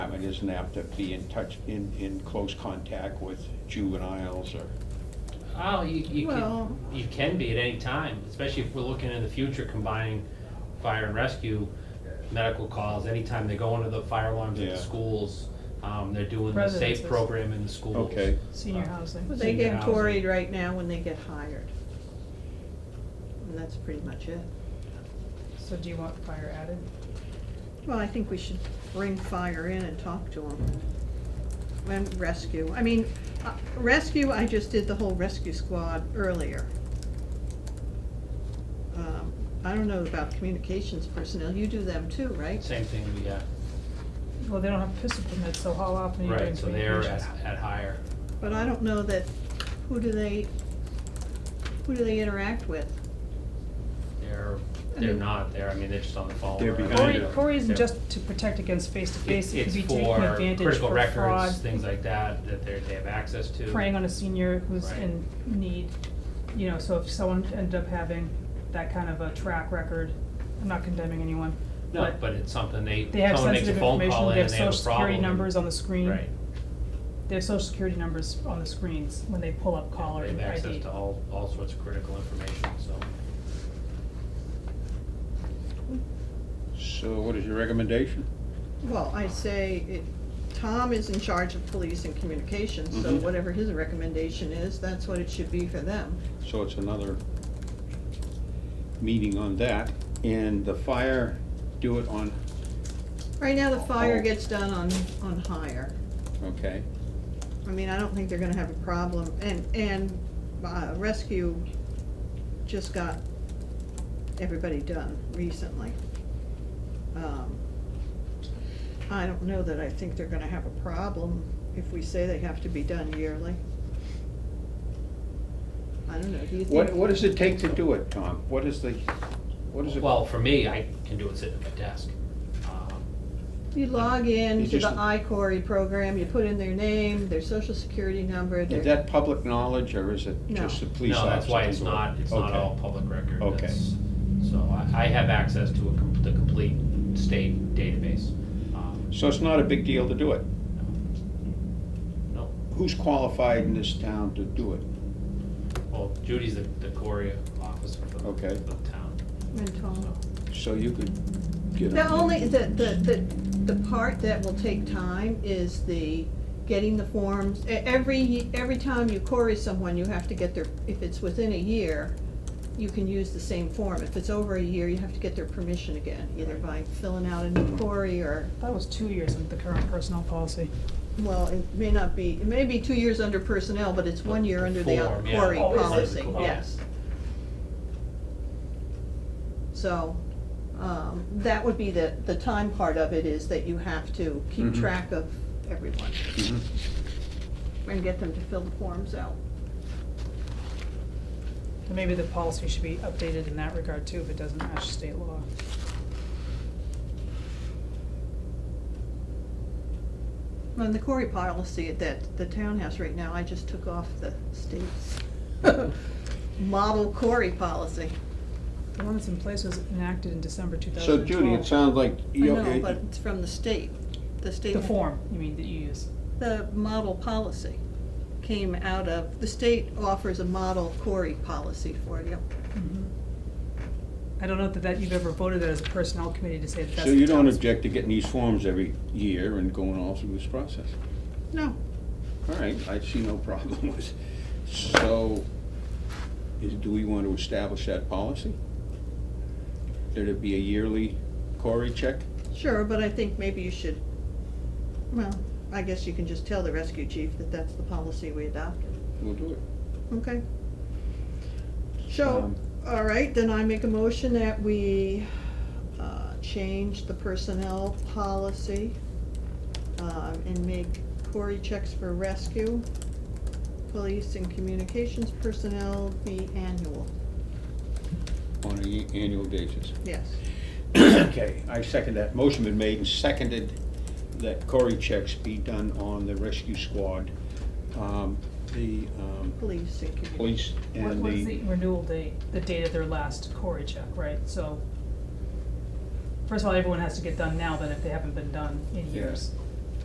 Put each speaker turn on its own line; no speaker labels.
Greg isn't apt to be in touch, in, in close contact with juveniles or,
Oh, you, you
Well-
can, you can be at any time, especially if we're looking in the future combining fire and rescue, medical calls, anytime they go into the fire alarms at
Yeah.
the schools. Um, they're doing the
Residences.
safe program in the schools.
Okay.
Senior
Uh,
housing.
Well, they
Senior
get
housing.
toried right now when they get hired. And that's pretty much it.
So do you want fire added?
Well, I think we should bring fire in and talk to them. And rescue, I mean, uh, rescue, I just did the whole rescue squad earlier. Um, I don't know about communications personnel, you do them too, right?
Same thing we got,
Well, they don't have pistol permits, so how often are you doing
right, so they're at,
communications?
at higher.
But I don't know that, who do they, who do they interact with?
They're,
I
they're
mean-
not there, I mean, they're just on the phone.
They're
or-
behind
Corey,
Kinda.
Corey isn't
They're-
just to protect against
It's
face-to-face, it could
it's
be taking
for
advantage
critical
for fraud,
records, things like that, that they're, they have access to.
preying on a senior who's
Right.
in need. You know, so if someone ended up having that kind of a track record, I'm not condemning anyone,
No, but it's something they,
They have
someone makes a
sensitive
phone
information,
call
they
in and
have
they have a problem.
social security numbers on the screen.
Right.
They have social security numbers on the screens when they pull up caller
They have
ID.
access to all, all sorts of critical information, so.
so what is your recommendation?
Well, I say, it, Tom is in charge of police and communications, so
Mhm.
whatever his recommendation is, that's what it should be for them.
So it's another meeting on that, and the fire, do it on,
Right now, the fire
Oh.
gets done on, on hire.
okay,
I mean, I don't think they're gonna have a problem, and, and, uh, rescue just got everybody done recently. Um, I don't know that I think they're gonna have a problem if we say they have to be done yearly. I don't know, do you think?
what, what does it take to do it, Tom? What is the, what is it?
Well, for me, I can do it sitting at my desk. Um,
You log
You
in to the
just-
iCory program, you put in their name, their social security number,
Is
their,
that public knowledge, or is it
No.
just the police
No,
officer?
that's why it's
can do it?
not, it's not
Okay.
all public record.
Okay.
That's- So I, I have access to a, com- the complete state database. Um,
So it's not a big deal to do it.
No,
Who's qualified in this town to do it?
well, Judy's the, the Coria officer for the,
Okay.
for the town,
and
so.
Tom.
So you could get.
The
on-
only, the, the, the, the part that will take time is the getting the forms. E- Every, every time you query someone, you have to get their, if it's within a year, you can use the same form. If it's over a year, you have to get their permission again, either by filling out a new query or,
I thought it was two years with the current personnel policy.
well, it may not be, it may be two years under personnel, but it's one year under the
Form, yeah.
query
Oh, is it?
policy,
Oh.
yes. So, um, that would be the, the time part of it is that you have to keep
Mm-hmm.
Mhm.
track of everyone
Mhm.
and get them to fill the forms out.
And maybe the policy should be updated in that regard too, if it doesn't match state law.
And the query policy that the town has right now, I just took off the state's model query policy.
The one that's in place was enacted in December two thousand
So
and twelve.
Judy, it sounds like
I
you.
know, but it's from the state, the state.
The form, you mean, that you use.
The model policy came out of, the state offers a model Cory policy for you.
Mhm. I don't know that that you've ever voted that as a personnel committee to say that that's.
So you
the
don't
town's-
object to getting these forms every year and going all through this process?
No.
All right, I see no problem with, so, is, do we want to establish that policy? That it be a yearly Cory check?
Sure, but I think maybe you should, well, I guess you can just tell the rescue chief that that's the policy we adopted,
We'll do it.
okay? So,
Um,
all right, then I make a motion that we, uh, change the personnel policy, um, and make Cory checks for rescue, police and communications personnel be annual.
On an ye- annual basis.
Yes.
Okay, I second that. Motion been made and seconded that Cory checks be done on the rescue squad, um, the, um,
Police and commu-
police
What
and
was
the,
the renewal date, the date of their last Cory check, right, so. First of all, everyone has to get done now, but if they haven't been done in
Yeah.
years.